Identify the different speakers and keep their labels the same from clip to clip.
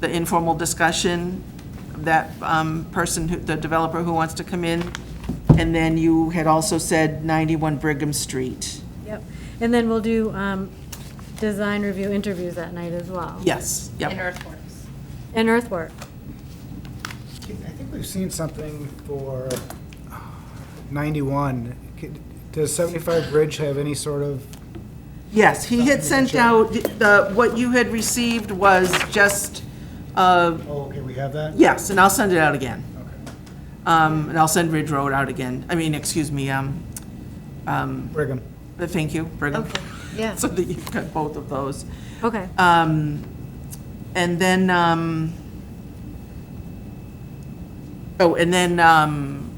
Speaker 1: the informal discussion, that um, person, who the developer who wants to come in, and then you had also said 91 Brigham Street.
Speaker 2: Yep. And then we'll do um, design review interviews that night as well.
Speaker 1: Yes,
Speaker 3: in
Speaker 1: yep.
Speaker 3: earthworks.
Speaker 2: And earthwork.
Speaker 4: I think we've seen something for 91. Could- Does 75 Bridge have any sort of,
Speaker 1: Yes, he had sent out, the, what you had received was just, uh,
Speaker 4: oh, okay, we have that?
Speaker 1: yes, and I'll send it out again.
Speaker 4: Okay.
Speaker 1: Um, And I'll send Ridge Road out again. I mean, excuse me, um, um,
Speaker 4: Brigham.
Speaker 1: thank you, Brigham.
Speaker 3: yeah.
Speaker 1: So that you've got both of those.
Speaker 2: Okay.
Speaker 1: Um, And then, um, oh, and then um,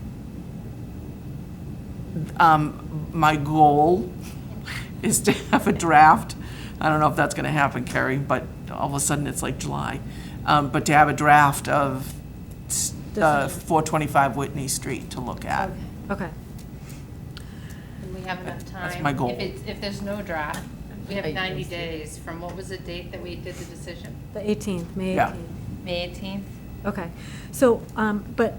Speaker 1: um, my goal is to have a draft. I don't know if that's going to happen, Carrie, but all of a sudden it's like July. Um, But to have a draft of s- uh, 425 Whitney Street to look at.
Speaker 3: Okay.
Speaker 2: Okay.
Speaker 3: And we have enough time.
Speaker 1: That's my goal.
Speaker 3: If it's, if there's no draft, we have 90 days from, what was the date that we did the decision?
Speaker 2: The 18th, May
Speaker 1: Yeah.
Speaker 2: 18th.
Speaker 3: May 18th
Speaker 2: Okay. So, um, but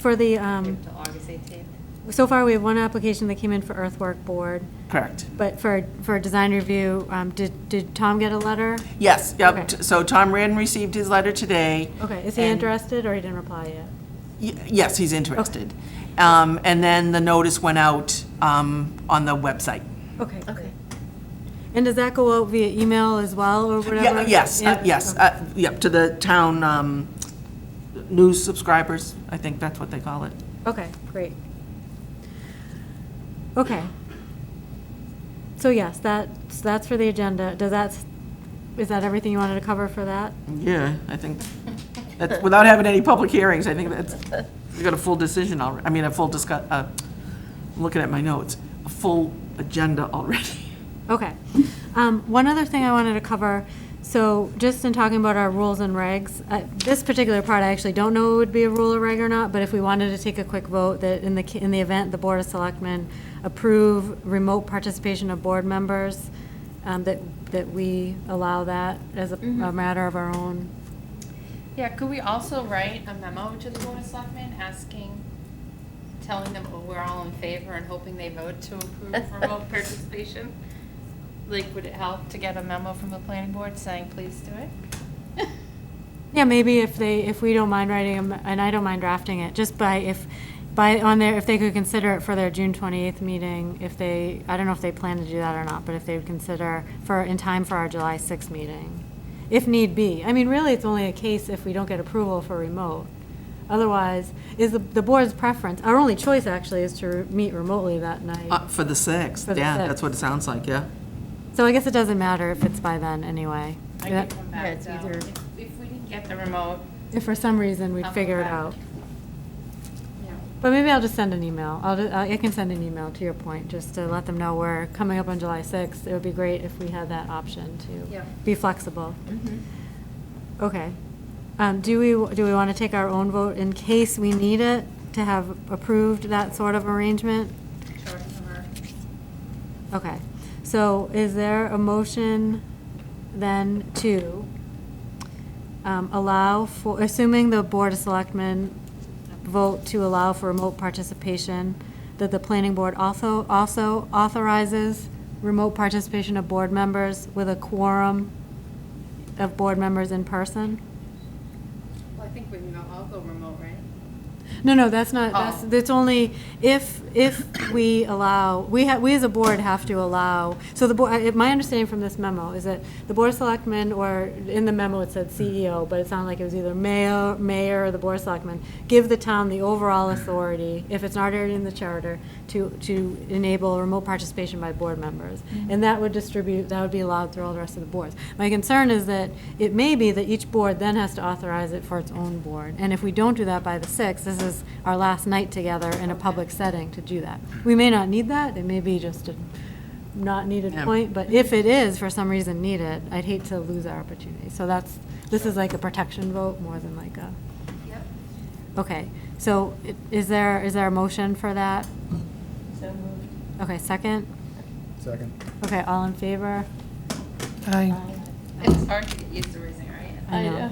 Speaker 2: for the, um,
Speaker 3: to August 18th?
Speaker 2: so far, we have one application that came in for earthwork board,
Speaker 1: Correct.
Speaker 2: but for, for design review, um, did, did Tom get a letter?
Speaker 1: Yes,
Speaker 2: Okay.
Speaker 1: yep. T- So Tom Rand received his letter today.
Speaker 2: Okay, is he
Speaker 1: And-
Speaker 2: interested or he didn't reply yet?
Speaker 1: Y- Yes, he's interested. Um, And then the notice went out um, on the website.
Speaker 2: Okay. Okay. And does that go out via email as well or
Speaker 1: Ye-
Speaker 2: whatever?
Speaker 1: Yes, uh,
Speaker 2: Yeah,
Speaker 1: yes,
Speaker 2: okay.
Speaker 1: uh, yep, to the town um, news subscribers, I think that's what they call it.
Speaker 2: Okay, great. Okay. So yes, that's, that's for the agenda. Does that, is that everything you wanted to cover for that?
Speaker 1: Yeah, I think, that's, without having any public hearings, I think that's, we got a full decision already, I mean, a full discuss, uh, I'm looking at my notes, a full agenda already.
Speaker 2: Okay. Um, One other thing I wanted to cover, so just in talking about our rules and regs, uh, this particular part, I actually don't know would be a rule or reg or not, but if we wanted to take a quick vote that in the, ca- in the event the Board of Selectmen approve remote participation of board members, um, that, that we allow that as a a matter of our own.
Speaker 3: Yeah, could we also write a memo to the Board of Selectmen asking, telling them oh, we're all in favor and hoping they vote to approve remote participation? Like, would it help to get a memo from the planning board saying, please do it?
Speaker 2: Yeah, maybe if they, if we don't mind writing, them, and I don't mind drafting it, just by if, by, on their, if they could consider it for their June 28th meeting, if they, I don't know if they plan to do that or not, but if they would consider for, in time for our July 6th meeting, if need be. I mean, really, it's only a case if we don't get approval for remote. Otherwise, is the, the board's preference, our only choice actually is to re- meet remotely that
Speaker 1: Uh,
Speaker 2: night.
Speaker 1: For the sixth,
Speaker 2: For the
Speaker 1: yeah,
Speaker 2: sixth.
Speaker 1: that's what it sounds like, yeah.
Speaker 2: So I guess it doesn't matter if it's by then, anyway.
Speaker 3: I
Speaker 2: Yeah.
Speaker 3: can come back,
Speaker 5: it's
Speaker 3: though.
Speaker 5: either-
Speaker 3: If if we didn't get the remote,
Speaker 2: If for some reason we
Speaker 3: I'll come
Speaker 2: figure it
Speaker 3: back.
Speaker 2: out.
Speaker 3: yeah.
Speaker 2: But maybe I'll just send an email. I'll, ju- I can send an email to your point, just to let them know we're coming up on July 6th. It would be great if we had that option to
Speaker 3: Yeah.
Speaker 2: be flexible. Okay. Um, Do we, do we want to take our own vote in case we need it to have approved that sort of arrangement?
Speaker 3: Short number.
Speaker 2: Okay. So is there a motion then to um, allow for, assuming the Board of Selectmen vote to allow for remote participation, that the planning board also, also authorizes remote participation of board members with a quorum of board members in person?
Speaker 3: Well, I think we can all- all go remote, right?
Speaker 2: No, no, that's not, that's,
Speaker 3: Oh.
Speaker 2: that's only if, if we allow, we have, we as a board have to allow, so the board, my understanding from this memo is that the board of selectmen, or in the memo it said CEO, but it sounded like it was either mayor, mayor or the board of selectmen, give the town the overall authority, if it's not already in the charter, to, to enable remote participation by board members. And that would distribute, that would be allowed through all the rest of the boards. My concern is that it may be that each board then has to authorize it for its own board. And if we don't do that by the 6th, this is our last night together in a public setting to do that. We may not need that, it may be just a not needed
Speaker 1: Yeah.
Speaker 2: point, but if it is for some reason needed, I'd hate to lose our opportunity. So that's, this is like a protection vote more than like a,
Speaker 3: Yep.
Speaker 2: okay. So i- is there, is there a motion for that?
Speaker 3: So moved.
Speaker 2: Okay, second?
Speaker 4: Second.
Speaker 2: Okay, all in favor?
Speaker 5: Aye.
Speaker 3: It's hard to get used to raising, right?
Speaker 2: I know.